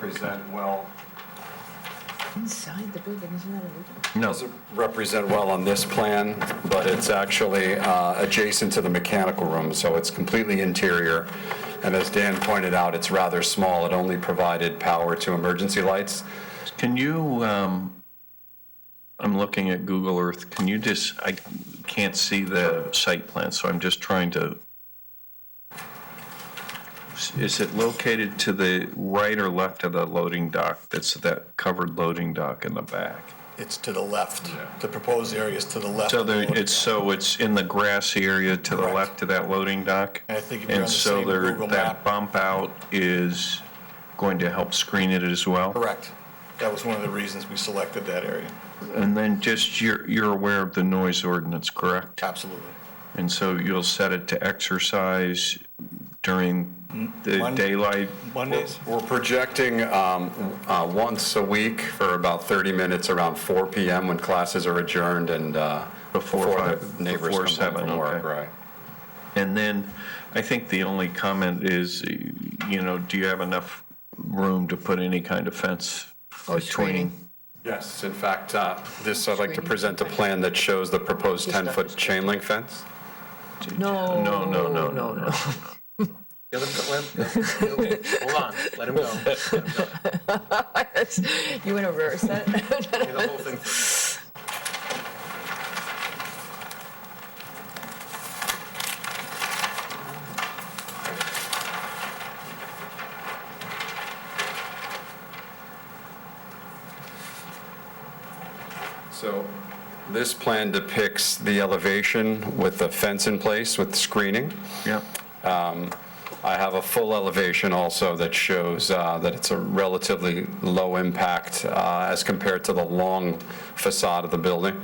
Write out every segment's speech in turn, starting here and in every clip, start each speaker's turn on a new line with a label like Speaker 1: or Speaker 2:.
Speaker 1: represent well,
Speaker 2: Inside the building, isn't that illegal?
Speaker 3: No,
Speaker 1: doesn't represent well on this plan, but it's actually uh, adjacent to the mechanical room, so it's completely interior. And as Dan pointed out, it's rather small. It only provided power to emergency lights.
Speaker 3: can you, um, I'm looking at Google Earth, can you just, I can't see the site plan, so I'm just trying to. Is it located to the right or left of the loading dock, that's that covered loading dock in the back?
Speaker 4: It's to the left. The proposed area is to the left.
Speaker 3: So there, it's, so it's in the grassy area to the
Speaker 4: Correct.
Speaker 3: left of that loading dock?
Speaker 4: And I think if you're on the same
Speaker 3: And so
Speaker 4: Google
Speaker 3: there, that
Speaker 4: map-
Speaker 3: bump out is going to help screen it as well?
Speaker 4: Correct. That was one of the reasons we selected that area.
Speaker 3: And then just, you're, you're aware of the noise ordinance, correct?
Speaker 4: Absolutely.
Speaker 3: And so you'll set it to exercise during the
Speaker 4: Mon-
Speaker 3: daylight?
Speaker 4: Mondays?
Speaker 1: We're projecting um, uh, once a week for about 30 minutes around 4 PM when classes are adjourned and uh,
Speaker 3: Before
Speaker 1: before
Speaker 3: five-
Speaker 1: the neighbors
Speaker 3: before
Speaker 1: come home
Speaker 3: seven,
Speaker 1: from work,
Speaker 3: okay.
Speaker 1: right?
Speaker 3: And then, I think the only comment is, you know, do you have enough room to put any kind of fence
Speaker 2: Or
Speaker 3: between?
Speaker 2: screening.
Speaker 1: Yes, in fact, uh, this, I'd like to present a plan that shows the proposed 10-foot chain link fence.
Speaker 2: No.
Speaker 3: No, no, no, no, no.
Speaker 2: Oh.
Speaker 5: Let him go, let him go. Okay, Hold on, let him go. Let him go.
Speaker 2: You want to reverse that?
Speaker 5: Hear the whole thing.
Speaker 1: So this plan depicts the elevation with the fence in place with screening.
Speaker 3: Yep,
Speaker 1: I have a full elevation also that shows uh, that it's a relatively low impact uh, as compared to the long facade of the building.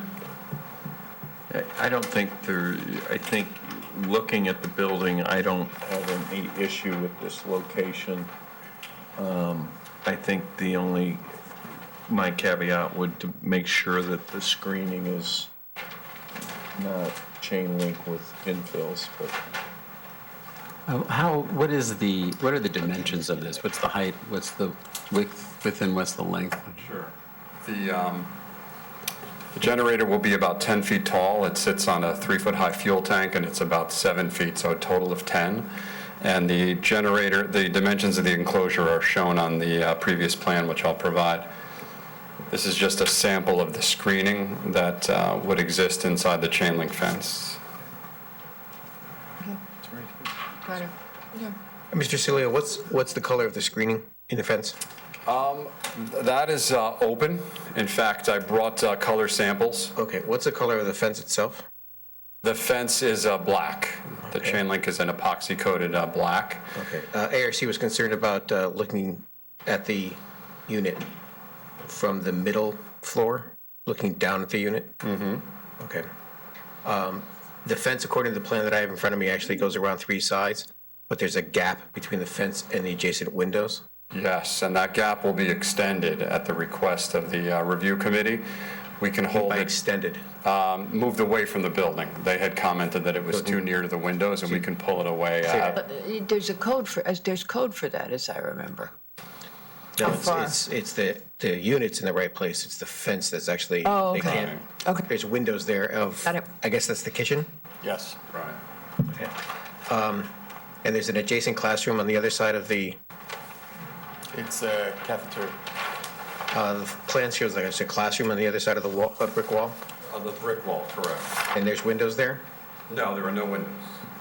Speaker 3: I- I don't think there, I think, looking at the building, I don't have any issue with this location. Um, I think the only, my caveat would to make sure that the screening is not chain link with infills, but
Speaker 6: Uh, How, what is the, what are the dimensions of this? What's the height, what's the width, width and what's the length?
Speaker 1: Sure. The um, the generator will be about 10 feet tall. It sits on a three-foot-high fuel tank, and it's about seven feet, so a total of 10. And the generator, the dimensions of the enclosure are shown on the uh, previous plan, which I'll provide. This is just a sample of the screening that uh, would exist inside the chain link fence.
Speaker 2: Got it.
Speaker 7: Mr. Cilio, what's, what's the color of the screening in the fence?
Speaker 1: That is uh, open. In fact, I brought uh, color samples.
Speaker 7: Okay, what's the color of the fence itself?
Speaker 1: The fence is uh, black. The
Speaker 7: Okay.
Speaker 1: chain link is an epoxy-coated uh, black.
Speaker 7: Okay, uh, ARC was concerned about uh, looking at the unit from the middle floor, looking down at the unit? Mm-hmm. Okay. Um, The fence, according to the plan that I have in front of me, actually goes around three sides, but there's a gap between the fence and the adjacent windows?
Speaker 1: Yes, and that gap will be extended at the request of the uh, review committee. We can hold
Speaker 7: By
Speaker 1: it,
Speaker 7: extended,
Speaker 1: um, moved away from the building. They had commented that it was too near to the windows, and we can pull it away. uh,
Speaker 2: But uh, there's a code for, as- there's code for that, as I remember.
Speaker 7: No,
Speaker 2: How
Speaker 7: it's,
Speaker 2: far?
Speaker 7: it's, it's the, the unit's in the right place, it's the fence that's actually.
Speaker 2: Oh,
Speaker 7: they
Speaker 2: okay.
Speaker 7: can't-
Speaker 2: Okay.
Speaker 7: There's windows there of.
Speaker 2: Got it.
Speaker 7: I guess that's the kitchen, Um,
Speaker 4: Yes.
Speaker 1: Right.
Speaker 7: and there's an adjacent classroom on the other side of the,
Speaker 4: It's a cafeteria.
Speaker 7: uh, the plan shows like it's a classroom on the other side of the wall, uh, brick wall,
Speaker 1: On the brick wall, correct.
Speaker 7: and there's windows there?
Speaker 1: No, there are no windows.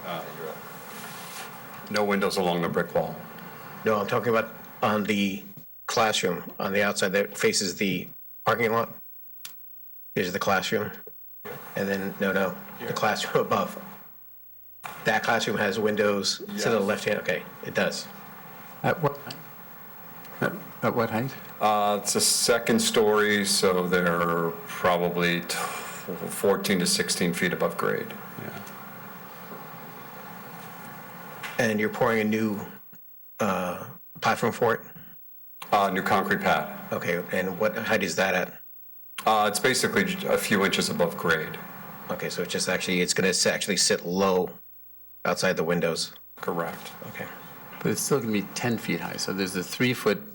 Speaker 1: Uh, you're right. No windows along the brick wall.
Speaker 7: No, I'm talking about on the classroom, on the outside that faces the parking lot. There's the classroom,
Speaker 1: Uh,
Speaker 7: and then, no, no, the classroom above. That classroom has windows to the
Speaker 1: Yes.
Speaker 7: left hand, okay, it does.
Speaker 6: At what? At at what height?
Speaker 1: Uh, It's a second story, so they're probably t- 14 to 16 feet above grade. Yeah.
Speaker 7: And you're pouring a new uh, platform for it?
Speaker 1: Uh, New concrete pad.
Speaker 7: Okay, and what height is that at?
Speaker 1: Uh, It's basically j- a few inches above grade.
Speaker 7: Okay, so it's just actually, it's going to actually sit low outside the windows.
Speaker 1: Correct.
Speaker 7: Okay.
Speaker 6: But it's still going to be 10 feet high, so there's a three-foot